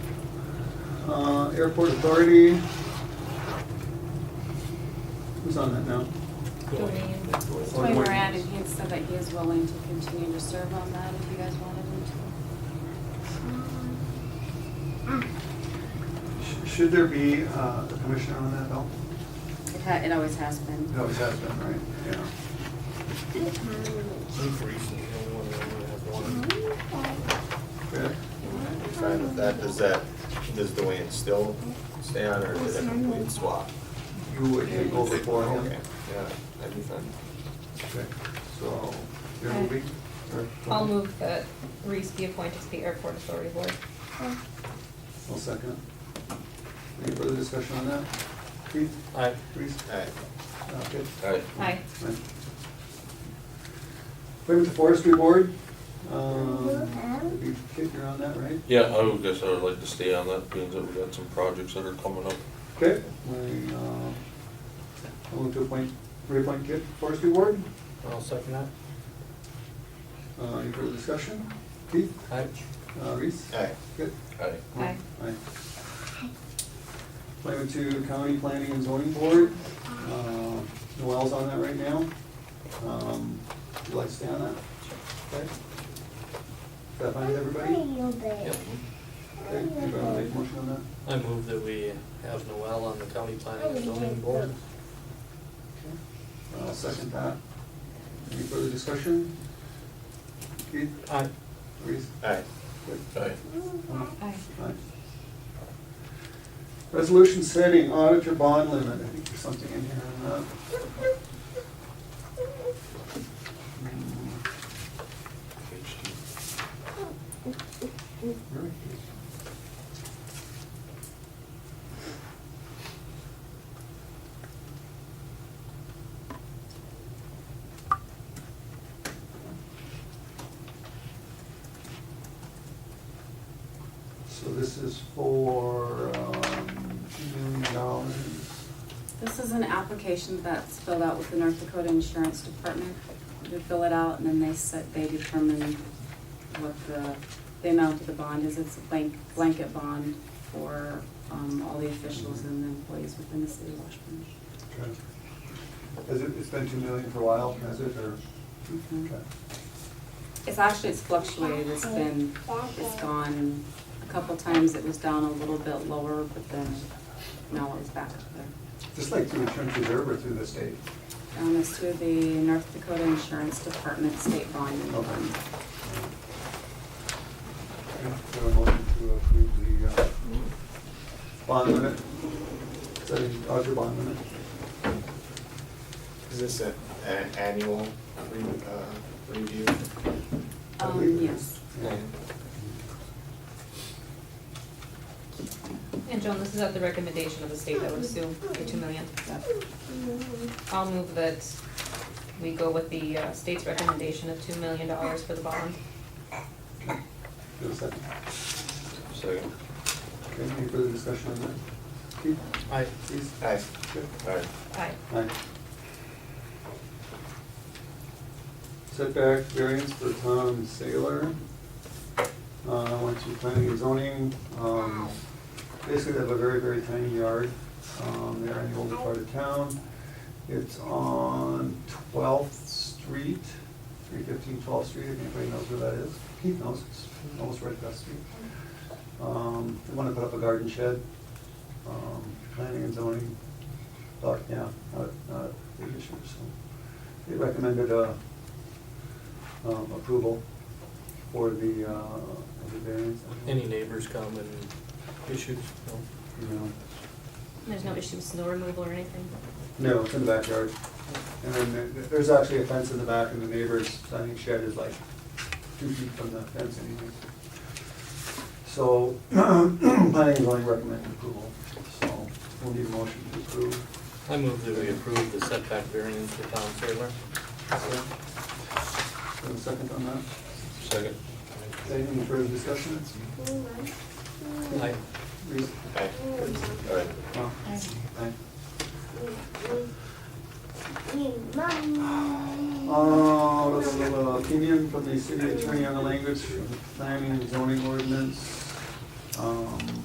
Uh, Airport Authority. Who's on that now? Tony Moran, and he had said that he is willing to continue to serve on that if you guys wanted him to. Sh- Should there be uh, a commissioner on that, Bill? It ha, it always has been. It always has been, right? Yeah. Okay. I'm fine with that. Does that, does Dwayne still stay on or is it a complete swap? You would take over for him? Okay, yeah, that'd be fun. Okay. So, you're moving? or- I'll move that uh, Reese be appointed to the Airport Authority Board. I'll second. Any further discussion on that? Keith? Aye. Reese? Uh, Alright, Okay. alright. Aye. Appointment to Forestry Board. Um, you- Kit, you're on that, right? Yeah, I would guess I would like to stay on that, being that we got some projects that are coming up. Okay. I, uh, I'll move to appoint, reappoint Kit, Forestry Board. I'll second that. Uh, Any further discussion? Keith? Aye. Uh, Reese? Aye. Kit? Aye. Aye. Aye. Appointment to County Planning and Zoning Board. Uh, Noel's on that right now. Um, Would you like to stay on that? Okay. Is that fine with everybody? Yep. Okay, anybody want to make a motion on that? I move that we have Noel on the county planning and zoning board. I'll second that. Any further discussion? Keith, Aye. Reese? Alright, Good. Aye. Aye. Aye. Resolution setting auditor bond limit, I think there's something in here Uh, on that. Hmm, Page two. where is it? So this is for, um, two million dollars. This is an application that's filled out with the North Dakota Insurance Department. You fill it out and then they set, they determine what the, the amount of the bond is. It's a blank, blanket bond for, um, all the officials and the employees within the city of Washburn. Okay. Has it, it's been two million for a while, has it, or? Mhm. Okay. It's actually, it's fluctuated, it's been, it's gone, a couple times it was down a little bit lower, but then now it's back up there. Just like through the insurance reserve or through the state? Down is to the North Dakota Insurance Department State Bond. Okay. Do a motion to approve the uh, bond limit, setting Dodger bond limit. is this a- an annual re- uh, review? I Um, believe it yes. is. Yeah. And Joan, this is at the recommendation of the state that would sue for two million. I'll move that we go with the uh, state's recommendation of two million dollars for the bond. Do a second. Second. Okay, any further discussion on that? Keith, Aye. please. Alright, Good. alright. Aye. Aye. Setback variance for Tom Saylor. Uh, went to planning and zoning, um, basically they have a very, very tiny yard, um, they're in the older part of town. It's on Twelfth Street, 315 12th Street, if anybody knows where that is. Keith knows, it's almost right across the street. Um, they wanna put up a garden shed, um, planning and zoning but, yeah, not, not a big issue, so. They recommended, uh, um, approval for the, uh, of the variance. Any neighbors come and issues? No. No. There's no issue with snow removal or anything? No, it's in the backyard. And then there- there's actually a fence in the back and the neighbor's sunning shed is like two feet from the fence anyways. So, planning is only recommending approval, so we'll need a motion to approve. I move that we approve the setback variance for Tom Saylor. Is there a second on that? Second. Is there Any further discussion? Aye. Reese? Aye, alright. No? Aye. Uh, this is an opinion from the city attorney on the language of the planning and zoning ordinance. Um,